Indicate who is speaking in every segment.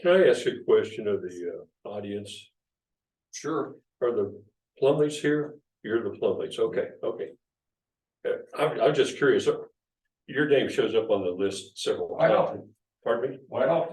Speaker 1: Can I ask a question of the uh, audience?
Speaker 2: Sure.
Speaker 1: Are the Plumleys here? You're the Plumleys, okay, okay. Uh, I'm, I'm just curious. uh, Your name shows up on the list several
Speaker 2: I know.
Speaker 1: times. Pardon me?
Speaker 2: Why not?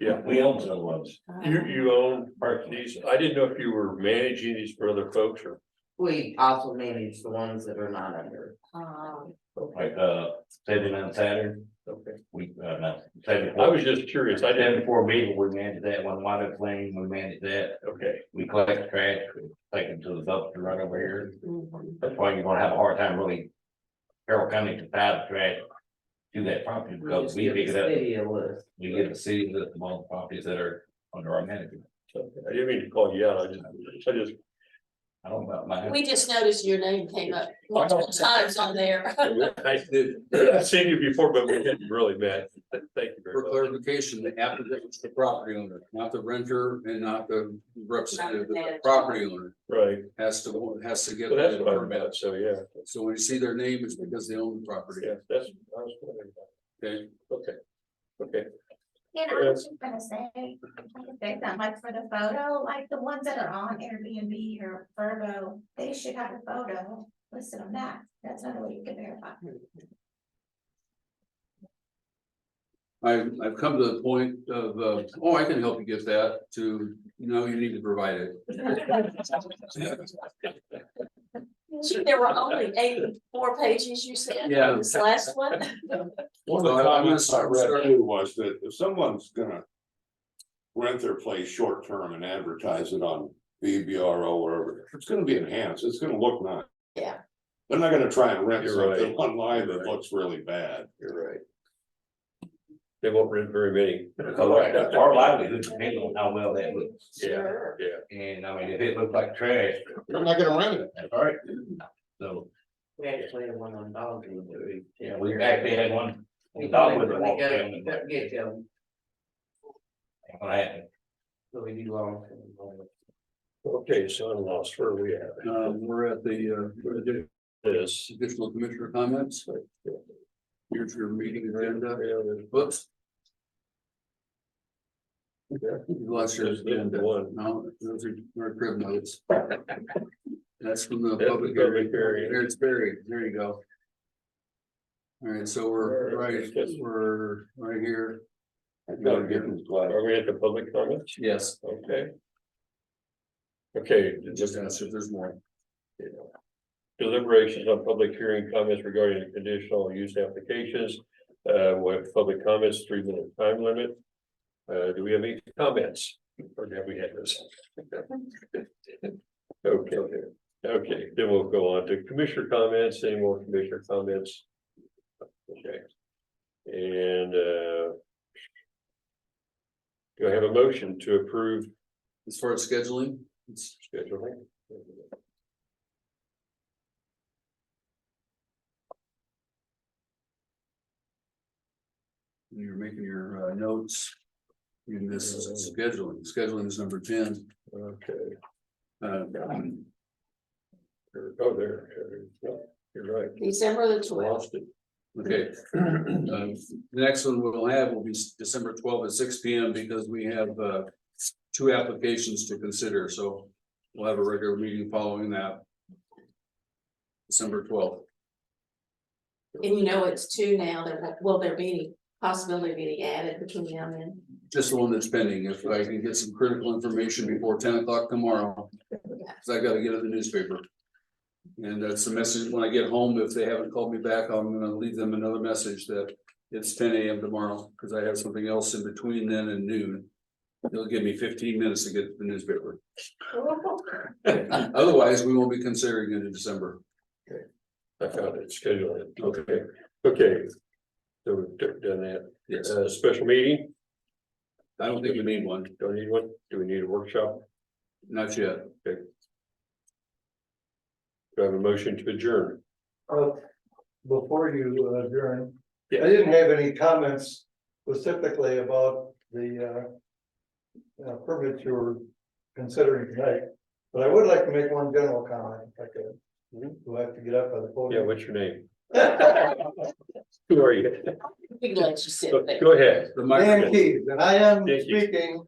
Speaker 1: Yeah.
Speaker 2: We own some ones.
Speaker 1: You, you own these. I didn't know if you were managing these for other folks or,
Speaker 3: We also manage the ones that are not under.
Speaker 4: Um,
Speaker 2: Like, uh, seven on Saturn,
Speaker 1: okay.
Speaker 2: we, uh, not, seven.
Speaker 1: I was just curious. I
Speaker 2: Seven
Speaker 1: didn't,
Speaker 2: four B, we manage that one, water clean, we manage that,
Speaker 1: okay,
Speaker 2: we collect trash, we take them to the dumpster right over here. That's why you're gonna have a hard time really. Carroll County to buy the trash. Do that property because
Speaker 3: just
Speaker 2: we
Speaker 3: give
Speaker 2: pick it
Speaker 3: the
Speaker 2: up,
Speaker 3: City a list.
Speaker 2: we get the city with the most properties that are under our management.
Speaker 1: Okay. I didn't mean to call you out. I just, I just,
Speaker 2: I don't know about mine.
Speaker 4: we just noticed your name came up multiple times on there.
Speaker 1: I did, I've seen you before, but we didn't really met. Thank you
Speaker 5: For
Speaker 1: very much.
Speaker 5: clarification, the applicant was the property owner, not the renter and not the representative, the property owner
Speaker 1: Right.
Speaker 5: has to, has to get.
Speaker 1: Well, that's
Speaker 5: the
Speaker 1: what I'm
Speaker 5: permit.
Speaker 1: about. So, yeah,
Speaker 5: So when you see their name, it's because they own the property,
Speaker 1: yeah, that's, I was wondering about.
Speaker 5: okay?
Speaker 1: Okay, okay,
Speaker 6: And I was just gonna say, like, they that like for the photo, like the ones that are on Airbnb or Verbo, they should have a photo listed on that. That's another way you can verify.
Speaker 5: I've, I've come to the point of, uh, oh, I can help you get that to, no, you need to provide it.
Speaker 4: Gee, There were only eighty-four pages you said,
Speaker 5: Yeah.
Speaker 4: this last one.
Speaker 7: One of the
Speaker 5: So I- I'm
Speaker 7: comments I
Speaker 5: gonna start-
Speaker 7: read too was that if someone's gonna. Rent their place short term and advertise it on VBRO or wherever, it's gonna be enhanced, it's gonna look nice.
Speaker 4: Yeah.
Speaker 7: They're not gonna try and rent
Speaker 1: You're right.
Speaker 7: something online that
Speaker 1: Right.
Speaker 7: looks really bad.
Speaker 1: you're right. They won't rent very many.
Speaker 2: Correct, our livelihood depends on how well that looks.
Speaker 4: Sure.
Speaker 1: Yeah,
Speaker 2: And I mean, if it looked like trash,
Speaker 7: They're not gonna rent it.
Speaker 2: that's all right. So,
Speaker 3: We actually had one on dog.
Speaker 2: yeah, we actually had one.
Speaker 3: We
Speaker 2: dog
Speaker 3: go,
Speaker 2: with a
Speaker 3: we
Speaker 2: walk down
Speaker 3: go,
Speaker 2: and
Speaker 3: but
Speaker 2: that
Speaker 3: get them,
Speaker 2: ain't gonna happen.
Speaker 3: so we do long. term.
Speaker 1: okay, so I'm lost, where are we at?
Speaker 5: Um, we're at the, uh, we're at the
Speaker 1: This.
Speaker 5: additional commissioner comments. Here's your meeting agenda. Whoops. You Lost your
Speaker 1: There's been
Speaker 5: agenda.
Speaker 1: one.
Speaker 5: No, those are, are crib notes. That's from the
Speaker 1: That's
Speaker 5: public
Speaker 1: the public
Speaker 5: area.
Speaker 1: hearing.
Speaker 5: There it's buried. There you go. All right, so we're right, we're right here.
Speaker 1: gotta get Are we at the public comments?
Speaker 5: Yes,
Speaker 1: Okay. Okay,
Speaker 5: just answer if there's more.
Speaker 1: deliberations on public hearing comments regarding the conditional use applications. Uh, with public comments, three minute time limit. Uh, do we have any comments? Or have we had this? Okay, okay, then we'll go on to commissioner comments, any more commissioner comments? Okay. And, uh. Do I have a motion to approve
Speaker 5: As far as scheduling, it's
Speaker 1: scheduling?
Speaker 5: You're making your uh, notes. And this is scheduling, scheduling is number ten.
Speaker 1: Okay.
Speaker 5: Uh,
Speaker 1: Oh, there, there, you're right,
Speaker 4: December the twelfth.
Speaker 1: lost it.
Speaker 5: Okay. Um, The next one we'll have will be s- December twelfth at six P M because we have uh two applications to consider, so we'll have a regular meeting following that. December twelfth.
Speaker 4: And you know it's two now, there, won't- will there be any possibility of any added between now and then?
Speaker 5: Just the one that's pending. If I can get some critical information before ten o'clock tomorrow. Cause I gotta get in the newspaper. And that's the message. When I get home, if they haven't called me back, I'm gonna leave them another message that it's ten AM tomorrow, cause I have something else in between then and noon. It'll give me fifteen minutes to get to the newspaper. Otherwise, we won't be considering it in December.
Speaker 1: I found it, schedule it, okay, okay. So we've d- done that,
Speaker 5: Yes,
Speaker 1: uh, special meeting,
Speaker 5: I don't think we need one,
Speaker 1: do I need one, do we need a workshop,
Speaker 5: not yet.
Speaker 1: do I have a motion to adjourn?
Speaker 8: Uh, before you uh, adjourn.
Speaker 1: Yeah.
Speaker 8: I didn't have any comments specifically about the uh. uh, permit you were considering tonight, but I would like to make one general comment, if I could. Do I have to get up on the
Speaker 1: Yeah,
Speaker 8: podium?
Speaker 1: what's your name?
Speaker 8: Who are you?
Speaker 9: We can let you sit
Speaker 8: Go
Speaker 9: there.
Speaker 8: go ahead.
Speaker 4: The
Speaker 1: Dan
Speaker 4: microphone.
Speaker 1: Keys, and I am
Speaker 8: Thank you.
Speaker 1: speaking